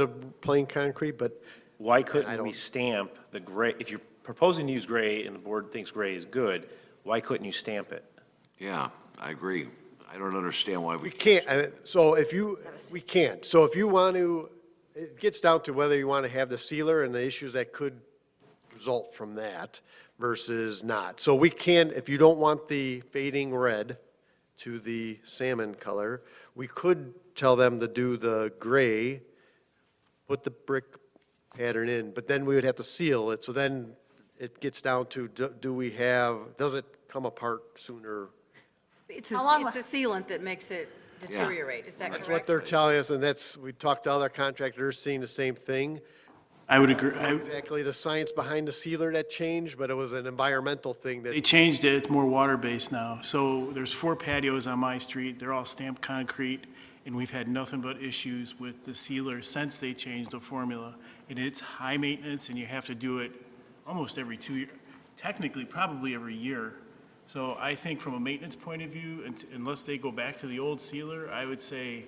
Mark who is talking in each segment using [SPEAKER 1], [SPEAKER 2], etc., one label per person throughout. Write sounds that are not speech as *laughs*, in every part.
[SPEAKER 1] the plain concrete, but
[SPEAKER 2] Why
[SPEAKER 1] I
[SPEAKER 2] couldn't we
[SPEAKER 1] don't-
[SPEAKER 2] stamp the gray, if you're proposing to use gray and the board thinks gray is good, why couldn't you stamp it?
[SPEAKER 3] Yeah, I agree. I don't understand why
[SPEAKER 1] we
[SPEAKER 3] we,
[SPEAKER 1] can't, I- so if you, we can't. So if you want to, it gets down to whether you want to have the sealer and the issues that could result from that versus not. So we can, if you don't want the fading red to the salmon color, we could tell them to do the gray, put the brick pattern in, but then we would have to seal it. So then it gets down to, do- do we have, does it come apart sooner?
[SPEAKER 4] It's
[SPEAKER 5] How long,
[SPEAKER 4] a- it's the sealant that makes it deteriorate, is
[SPEAKER 3] That's
[SPEAKER 4] that correct?
[SPEAKER 1] That's what they're telling us, and that's, we talked to other contractors, seeing the same thing.
[SPEAKER 6] I would agree. I-
[SPEAKER 1] Exactly the science behind the sealer that changed, but it was an environmental thing
[SPEAKER 6] They
[SPEAKER 1] that,
[SPEAKER 6] changed it, it's more water-based now. So there's four patios on my street, they're all stamped concrete, and we've had nothing but issues with the sealer since they changed the formula. And it's high maintenance, and you have to do it almost every two, year- technically, probably every year. So I think from a maintenance point of view, un- unless they go back to the old sealer, I would say,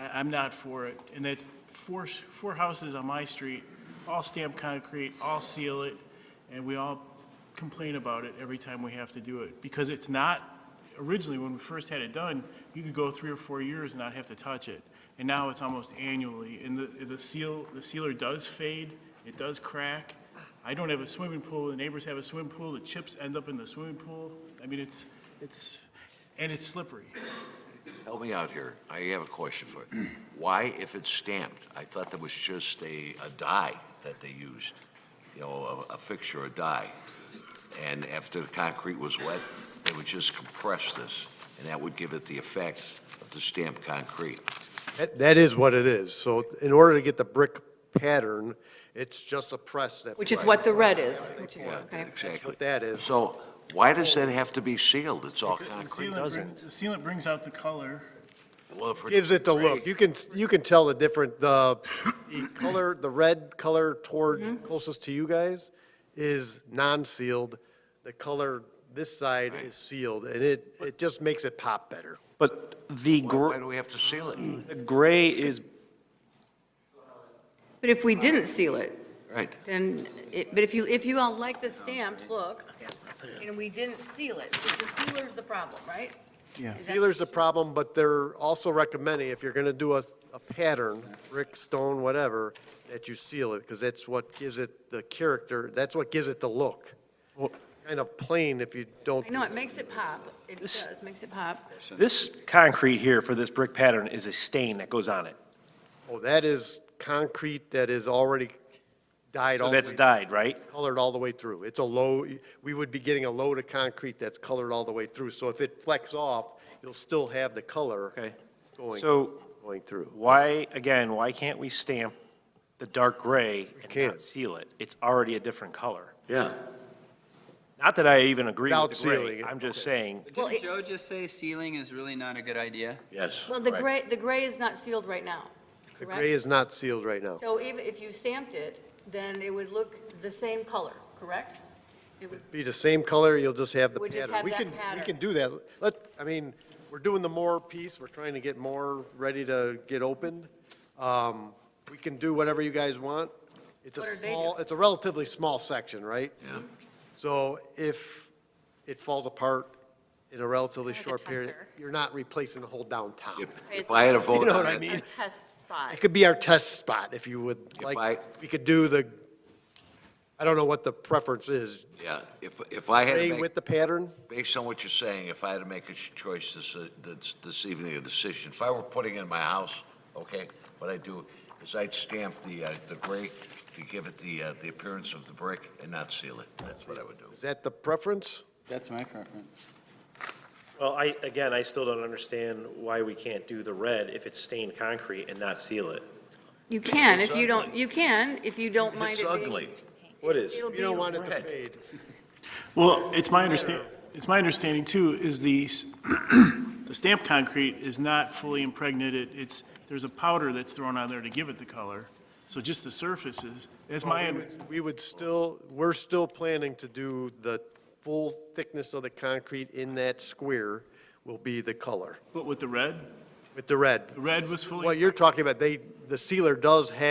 [SPEAKER 6] I, I'm not for it. And that's four, s- four houses on my street, all stamped concrete, all seal it, and we all complain about it every time we have to do it. Because it's not, originally, when we first had it done, you could go three or four years and not have to touch it. And now it's almost annually, and the, the seal, the sealer does fade, it does crack. I don't have a swimming pool, the neighbors have a swimming pool, the chips end up in the swimming pool. I mean, it's, it's, and it's slippery.
[SPEAKER 3] help me out here. I have a question for you. *clears throat* Why, if it's stamped, I thought that was just a, a dye that they used, you know, a, a fixture, a dye. And after the concrete was wet, they would just compress this, and that would give it the effect of the stamped concrete.
[SPEAKER 1] that- that is what it is. So in order to get the brick pattern, it's just a press that.
[SPEAKER 4] Which is what the red is, which is,
[SPEAKER 3] Yeah,
[SPEAKER 4] okay.
[SPEAKER 1] That's
[SPEAKER 3] Exactly.
[SPEAKER 1] what that is.
[SPEAKER 3] So why does that have to be sealed? It's all
[SPEAKER 6] The
[SPEAKER 3] concrete.
[SPEAKER 6] sealant brings- The sealant brings out the color.
[SPEAKER 3] Well, if
[SPEAKER 1] Gives it the look. You can, you can tell the different, the the color, the red color toward, closest to you guys is non-sealed. The color this side is sealed, and it, it just makes it pop better.
[SPEAKER 2] But the
[SPEAKER 3] Why
[SPEAKER 2] gr-
[SPEAKER 3] do we have to seal it?
[SPEAKER 2] the gray is,
[SPEAKER 4] But if we didn't seal it,
[SPEAKER 3] Right.
[SPEAKER 4] then, it- but if you, if you all like the stamped look, and we didn't seal it, so the sealer's the problem, right?
[SPEAKER 6] Yes.
[SPEAKER 1] Sealer's the problem, but they're also recommending, if you're gonna do a, a pattern, brick, stone, whatever, that you seal it, because that's what gives it the character, that's what gives it the look. Kind of plain if you don't.
[SPEAKER 4] I know, it makes it pop, it
[SPEAKER 2] This-
[SPEAKER 4] does, makes it pop.
[SPEAKER 2] this concrete here for this brick pattern is a stain that goes on it.
[SPEAKER 1] Oh, that is concrete that is already dyed all
[SPEAKER 2] So
[SPEAKER 1] the
[SPEAKER 2] that's
[SPEAKER 1] way,
[SPEAKER 2] dyed, right?
[SPEAKER 1] colored all the way through. It's a low, we would be getting a load of concrete that's colored all the way through, so if it flecks off, you'll still have the color
[SPEAKER 2] Okay.
[SPEAKER 1] going,
[SPEAKER 2] So
[SPEAKER 1] going through.
[SPEAKER 2] why, again, why can't we stamp the dark gray and
[SPEAKER 1] can't.
[SPEAKER 2] not seal it? It's already a different color.
[SPEAKER 3] Yeah.
[SPEAKER 2] Not that I even agree
[SPEAKER 1] Without
[SPEAKER 2] with the
[SPEAKER 1] sealing
[SPEAKER 2] gray.
[SPEAKER 1] it,
[SPEAKER 2] I'm just saying,
[SPEAKER 4] Well,
[SPEAKER 7] Didn't
[SPEAKER 4] it-
[SPEAKER 7] Joe just say sealing is really not a good idea?
[SPEAKER 3] Yes.
[SPEAKER 4] Well, the
[SPEAKER 3] right.
[SPEAKER 4] gray, the gray is not sealed right now,
[SPEAKER 1] The gray
[SPEAKER 4] correct?
[SPEAKER 1] is not sealed right now.
[SPEAKER 4] So even if you stamped it, then it would look the same color, correct? It would
[SPEAKER 1] Be the same color, you'll just have the
[SPEAKER 4] We'll just
[SPEAKER 1] pattern.
[SPEAKER 4] have
[SPEAKER 1] We
[SPEAKER 4] that
[SPEAKER 1] can, we
[SPEAKER 4] pattern.
[SPEAKER 1] can do that. Let, I mean, we're doing the more piece, we're trying to get more ready to get opened. Um, We can do whatever you guys want. It's a
[SPEAKER 4] What are they
[SPEAKER 1] small,
[SPEAKER 4] doing?
[SPEAKER 1] it's a relatively small section, right? Yeah. So if it falls apart in a relatively
[SPEAKER 5] Like a
[SPEAKER 1] short period,
[SPEAKER 5] tester.
[SPEAKER 1] you're not replacing the whole downtown.
[SPEAKER 3] If, if I had
[SPEAKER 1] *laughs*
[SPEAKER 3] a
[SPEAKER 1] You
[SPEAKER 3] vote
[SPEAKER 1] know what
[SPEAKER 3] on
[SPEAKER 1] I
[SPEAKER 3] it,
[SPEAKER 1] mean?
[SPEAKER 5] a test spot?
[SPEAKER 1] It could be our test spot, if you would
[SPEAKER 3] If
[SPEAKER 1] like.
[SPEAKER 3] I-
[SPEAKER 1] We could do the, I don't know what the preference is,
[SPEAKER 3] yeah, if, if I had
[SPEAKER 1] gray
[SPEAKER 3] to make
[SPEAKER 1] with the pattern?
[SPEAKER 3] Based on what you're saying, if I had to make a ch- choice this, uh, this, this evening, a decision, if I were putting in my house, okay, what I'd do is I'd stamp the, uh, the gray to give it the, uh, the appearance of the brick and not seal it. That's what I would do.
[SPEAKER 1] Is that the preference?
[SPEAKER 7] That's my preference.
[SPEAKER 2] Well, I, again, I still don't understand why we can't do the red if it's stained concrete and not seal it.
[SPEAKER 4] You can,
[SPEAKER 3] It's
[SPEAKER 4] if you don't,
[SPEAKER 3] ugly.
[SPEAKER 4] you can, if you don't mind it
[SPEAKER 3] It's
[SPEAKER 4] being.
[SPEAKER 3] ugly.
[SPEAKER 2] What is?
[SPEAKER 4] It'll
[SPEAKER 1] You don't
[SPEAKER 4] be-
[SPEAKER 1] want it to
[SPEAKER 2] red.
[SPEAKER 1] fade.
[SPEAKER 6] Well, it's my understand, it's my understanding too, is the, s- *clears throat* the stamped concrete is not fully impregnated. It's, there's a powder that's thrown on there to give it the color. So just the surfaces, that's my,
[SPEAKER 1] We would- We would still, we're still planning to do the full thickness of the concrete in that square will be the color
[SPEAKER 6] but with the red,
[SPEAKER 1] with the red.
[SPEAKER 6] the red was fully.
[SPEAKER 1] What you're talking about, they, the sealer does have